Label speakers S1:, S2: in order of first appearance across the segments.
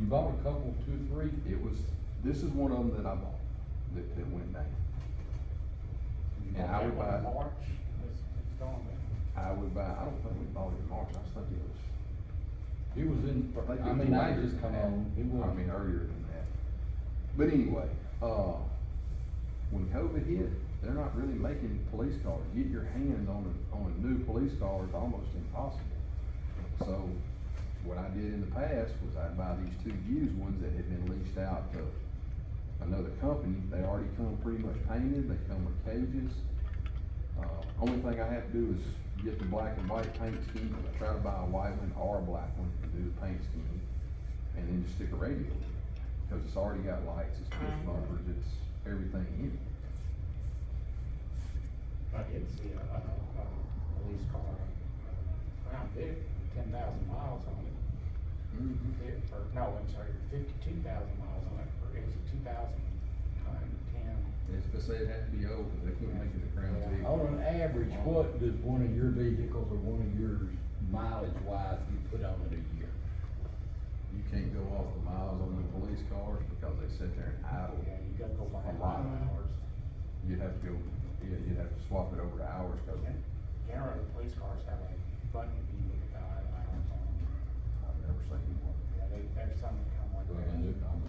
S1: You bought a couple, two or three,
S2: It was, this is one of them that I bought, that, that went down. And I would buy,
S3: March, it's, it's gone, man.
S2: I would buy, I don't think we bought it in March, I was thinking it was.
S1: it was in,
S2: I think it
S1: I
S2: was
S1: mean, I
S2: earlier
S1: just
S2: than
S1: come
S2: that.
S1: on, it was.
S2: I mean, earlier than that. But anyway, uh, when COVID hit, they're not really making police cars. Get your hands on a, on a new police car is almost impossible. So what I did in the past was I'd buy these two used ones that had been leased out to another company. They already come pretty much painted, they come with cages. Uh, only thing I have to do is get the black and white paint scheme, I try to buy a white one or a black one to do the paint scheme, and then just stick a radio in it, cause it's already got lights, it's push bumpers, it's everything in it.
S3: I did see a, a, a police car, uh, around there, ten thousand miles on it. It, for, no, I'm sorry, fifty-two thousand miles on it, for, it was a two thousand, uh, ten.
S2: It's, they say it has to be old, 'cause they couldn't make it a crown
S3: Yeah.
S2: vehicle.
S1: On an average, what does one of your vehicles or one of yours mileage wise you put on it a year?
S2: You can't go off the miles on the police cars because they sit there and idle.
S3: Yeah, you gotta go by
S2: A
S3: a
S2: lot.
S3: lot of hours.
S2: You'd have to go, yeah, you'd have to swap it over to hours, cause
S3: Generally, police cars have a button if you look about idle hours on them.
S2: I've never seen one.
S3: Yeah, they, there's some that come like that.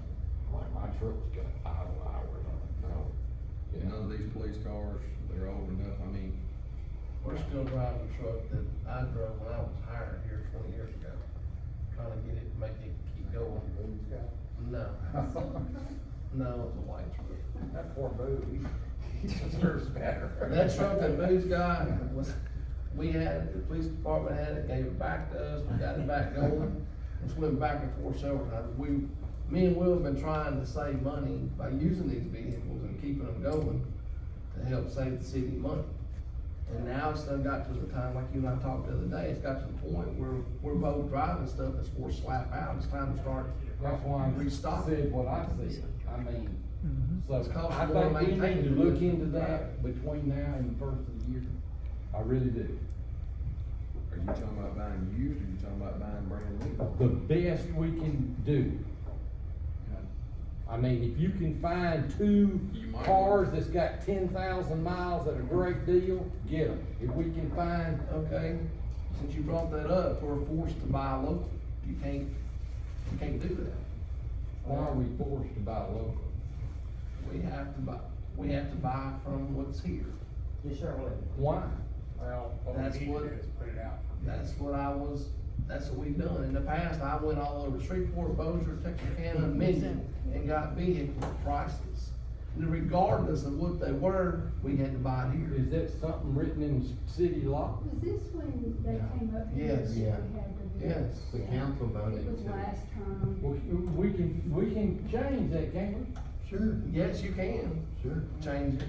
S1: Like my truck's got idle hours on it.
S2: No. None of these police cars, they're old enough, I mean,
S4: We're still driving a truck that I drove when I was hired here twenty years ago, trying to get it, make it keep going. No, no, it was a white truck.
S3: That poor boob, he deserves better.
S4: That truck that Boo's got was, we had it, the police department had it, gave it back to us, we got it back going. It's went back and forth several times. We, me and Will have been trying to save money by using these vehicles and keeping them going to help save the city money. And now it's done got to the time, like you and I talked the other day, it's got to the point where we're both driving stuff that's more slap out, it's time to start.
S1: That's why I
S4: Restock.
S1: said what I said, I mean, so
S4: It's cost
S1: I
S4: more to
S1: think we need to
S4: maintain.
S1: look into that between now and the first of the year. I really do.
S2: Are you talking about buying used, or you talking about buying brand
S1: The
S2: new?
S1: best we can do. I mean, if you can find two
S2: You might.
S1: cars that's got ten thousand miles at a great deal, get them. If we can find,
S4: Okay, since you brought that up, we're forced to buy local, you can't, you can't do that.
S1: why are we forced to buy local?
S4: We have to buy, we have to buy from what's here.
S5: You sure would.
S1: Why?
S3: Well, what we
S4: That's
S3: need to
S4: what-
S3: do is put it out for bid.
S4: That's what I was, that's what we've done. In the past, I went all over Shreveport, Bossier, Texarkana, Minden, and got vehicle prices. And regardless of what they were, we had to buy it here.
S1: Is that something written in s- city law?
S6: Was this when they came up? here
S4: Yes.
S6: and
S7: Yeah.
S6: we had the bid?
S4: Yes.
S7: The council voted
S6: It was
S7: to-
S6: last time.
S1: We, we can, we can change that, can't we?
S7: Sure,
S4: Yes, you can
S7: sure.
S4: change it.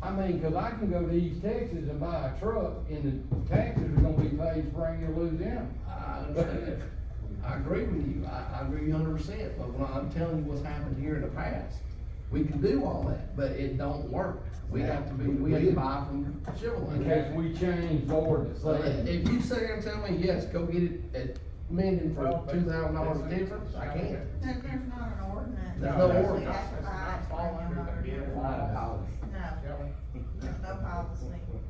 S1: I mean, cause I can go to East Texas and buy a truck and the taxes are gonna be paid spring or Louisiana.
S4: I understand. I agree with you. I, I agree with you hundred percent, but when I'm telling you what's happened here in the past, we can do all that, but it don't work. We have to be, we have to buy from Chevrolet.
S1: In case we change the ordinance,
S4: So
S1: say,
S4: if if you sit there and tell me, yes, go get it at Minden for
S3: Well, but-
S4: two thousand dollars difference, I can't.
S8: There, there's not an ordinance.
S4: There's no
S8: You
S4: ordinance.
S8: have to buy it
S3: It's not fall under the bid
S8: from
S3: law.
S8: your- No,
S3: Shall we?
S8: there's no policy.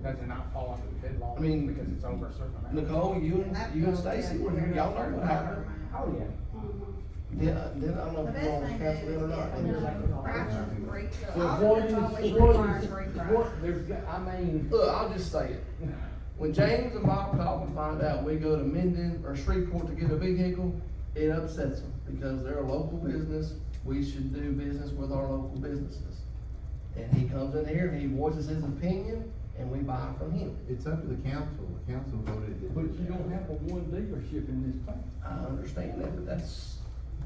S3: Does it not fall under the bid law?
S4: I mean,
S3: Because it's over a certain amount.
S4: Nicole, you and, you and Stacy were here, y'all know what happened.
S5: Oh, yeah.
S6: Um,
S4: Then, uh, then I don't know
S8: The
S4: if you're
S8: best
S4: on
S8: thing
S4: council
S8: is,
S4: or not.
S8: yeah, the prices re,
S1: So
S8: the
S1: what
S8: auditors
S1: is,
S8: always
S1: what
S8: requires
S1: is,
S8: reprice.
S1: what, there's, got- I mean,
S4: Look, I'll just say it. When James and Bob call and find out we go to Minden or Shreveport to get a vehicle, it upsets them because they're a local business. We should do business with our local businesses. And he comes in here and he voices his opinion and we buy from him.
S7: It's up to the council, the council voted. it.
S1: but you don't have but one dealership in this town.
S4: I understand that, but that's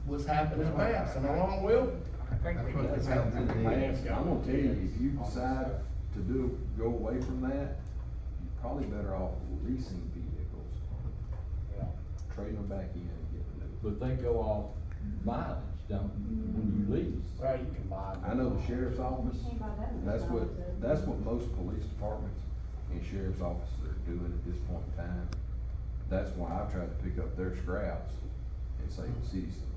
S4: what's happened in the past. Am I wrong, Will?
S3: I think we
S7: That's what
S3: do
S7: they
S3: have
S7: have to do.
S2: I'm gonna tell you, if you decide to do, go away from that, you're probably better off leasing vehicles,
S3: Yeah.
S2: trading them back in and getting new.
S1: But they go off mileage, don't, when you lease.
S3: Well, you can buy.
S2: I know the sheriff's office,
S6: Can't buy that in
S2: that's what,
S6: Louisiana, too.
S2: that's what most police departments and sheriff's offices are doing at this point in time. That's why I've tried to pick up their scraps and save the city some